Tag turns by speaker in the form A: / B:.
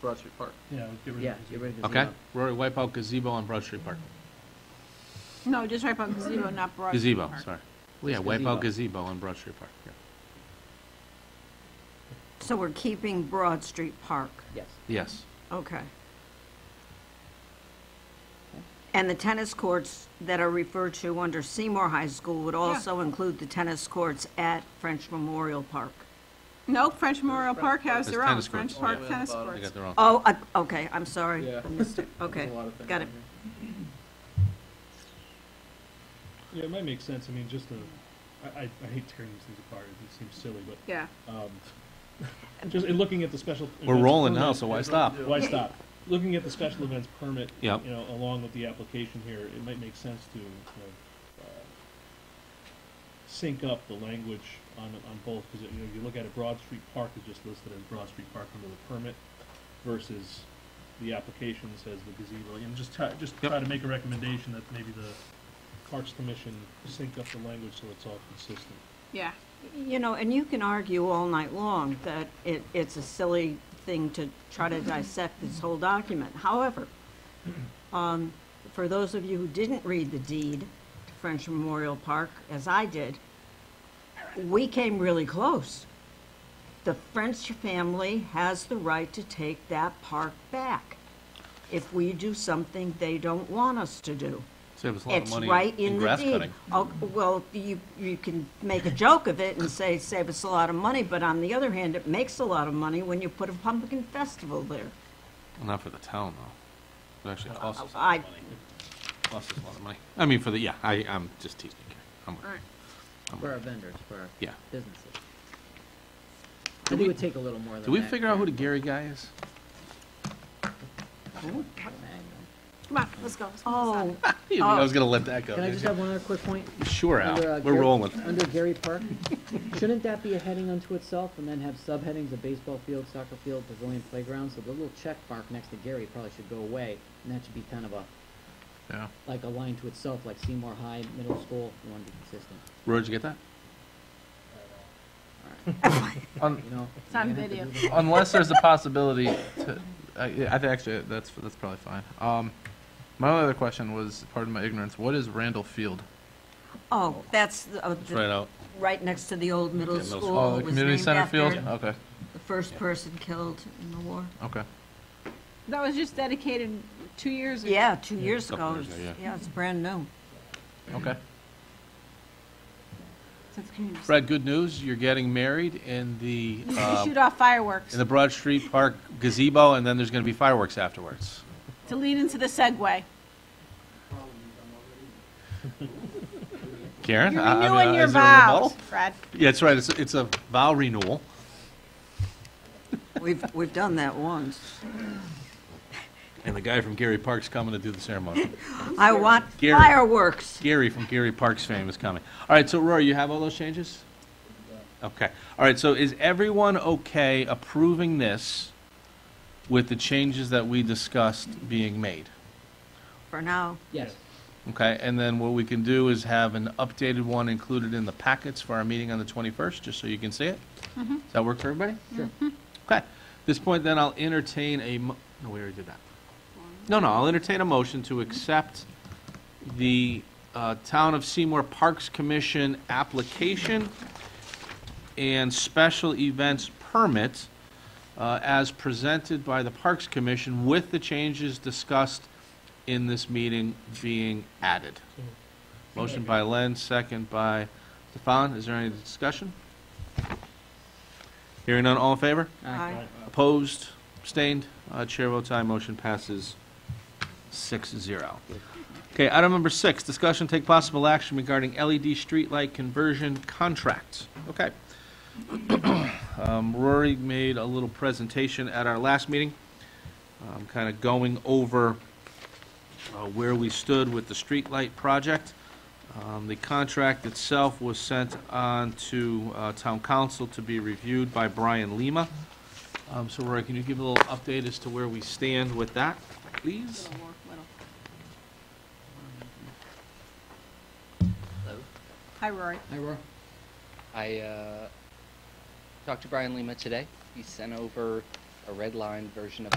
A: Broad Street Park.
B: Yeah, get rid
C: Yeah,
B: of it.
C: get rid of the
D: Okay,
C: zero.
D: Rory, wipe out gazebo on Broad Street Park.
E: No, just right by gazebo, not Broad. Street
D: Gazebo,
E: Park.
D: sorry. Well, Yeah,
C: It's
D: wipe out gazebo on Broad Street Park. yeah.
E: So we're keeping Broad Street Park,
C: Yes.
D: Yes,
E: okay. And the tennis courts that are referred to under Seymour High School would also include the tennis courts at French Memorial Park.
F: No, French Memorial Park has
D: It's
F: their own,
D: tennis courts.
F: French
D: Oh,
F: Park
A: yeah.
F: tennis
A: Bottom.
D: I
F: courts.
D: got the wrong.
E: Oh, I- okay, I'm sorry.
A: Yeah.
E: I missed it. Okay,
A: There's a lot of things
E: got
A: on
E: it.
A: here.
B: Yeah, it might make sense, I mean, just to, I, I, I hate tearing these things apart, it seems silly, but,
F: Yeah,
B: um, just in looking at the special.
D: We're
B: events
D: rolling now,
B: permit-
D: so why stop?
B: Why stop? Looking at the special events permit, you
D: Yep.
B: know, along with the application here, it might make sense to, you know, uh, sync up the language on, on both, because, you know, you look at it, Broad Street Park is just listed as Broad Street Park under the permit versus the application says the gazebo, and just try, just
D: Yep.
B: try to make a recommendation that maybe the Parks Commission sync up the language so it's all consistent.
F: yeah.
E: You know, and you can argue all night long that it, it's a silly thing to try to dissect this whole document. However, um, for those of you who didn't read the deed to French Memorial Park, as I did, we came really close. The French family has the right to take that park back if we do something they don't want us to do.
D: Save us a lot of
E: It's
D: money
E: right
D: in
E: in the
D: grass
E: deed.
D: cutting.
E: Oh, Well, you, you can make a joke of it and say, save us a lot of money, but on the other hand, it makes a lot of money when you put a pumpkin festival there.
D: Well, Not for the town, though. It actually costs us,
E: I,
D: costs us a lot of money. I mean, for the, yeah, I, I'm just teasing you. I'm with you.
F: All right.
D: I'm with
C: For
D: you.
C: our vendors, for our
D: Yeah.
C: businesses. I
D: Do
C: think
D: we-
C: it would take a little more than that.
D: Do we figure out who the Gary guy is?
F: Come on, let's go. let's go, let's
E: oh,
D: I was gonna let that go.
C: Can I
D: didn't
C: just
D: you?
C: have one other quick point?
D: Sure,
C: Under, uh,
D: Al, we're
C: Gary-
D: rolling.
C: Under Gary Park, shouldn't that be a heading unto itself and then have subheadings of baseball field, soccer field, pavilion playground? So the little check mark next to Gary probably should go away, and that should be kind of a,
D: Yeah.
C: like a line to itself, like Seymour High Middle School, you want to be consistent,
D: Rory, did you get that?
C: you know?
F: It's on
C: You're gonna have to
F: video.
C: do the-
D: Unless there's a possibility to, I, I think actually, that's, that's probably fine. Um, my only other question was, pardon my ignorance, what is Randall Field?
E: oh, that's the- uh,
D: Right out.
E: right next to the old middle
D: middle
E: school.
D: school.
E: It
D: Oh, the
E: was
D: community
E: named
D: center
E: after
D: field? Okay,
E: The first person killed in the war.
D: okay.
F: go. That was just dedicated two years ago.
E: Yeah, two years
D: couple
E: ago.
D: years ago, yeah.
E: Yeah, it's brand new.
D: Okay.
F: Since community
D: Brad, good news, you're getting married in the,
F: You should
D: uh,
F: shoot off fireworks
D: in the Broad Street Park gazebo, and then there's gonna be fireworks afterwards.
F: to lead into the segue.
D: Karen?
F: You're
D: I- I mean,
F: renewing
D: uh,
F: your
D: is there a rebuttal?
F: vows, Brad.
D: Yeah, that's right, it's, it's a vow renewal.
E: We've, we've done that once.
D: And the guy from Gary Park's coming to do the ceremony.
E: I want
D: Gary.
E: fireworks.
D: Gary from Gary Parks fame is coming. All right, so Rory, you have all those changes? Okay. All right, so is everyone okay approving this with the changes that we discussed being made?
E: For now,
C: Yes,
D: Okay, and then what we can do is have an updated one included in the packets for our meeting on the 21st, just so you can see it. Does that work for everybody?
C: sure.
D: Okay. At this point, then, I'll entertain a, mo- no, we already did that. No, no, I'll entertain a motion to accept the uh, Town of Seymour Parks Commission application and special events permit uh, as presented by the Parks Commission with the changes discussed in this meeting being added. Motion by Len, second by Stefan. Is there any discussion? Hearing none, all in favor?
C: Aye.
E: I,
D: Opposed, abstained, Uh, chair votes aye, motion passes six zero. Okay, item number six, discussion take possible action regarding LED streetlight conversion contract. Okay. Um, Rory made a little presentation at our last meeting, um, kind of going over uh, where we stood with the streetlight project. Um, The contract itself was sent on to uh, town council to be reviewed by Brian Lima. Um, so Roy, can you give a little update as to where we stand with that, please?
F: Little more, little. Hi, Rory.
C: Hi, Roy.
G: I uh, talked to Brian Lima today. He sent over a red line version of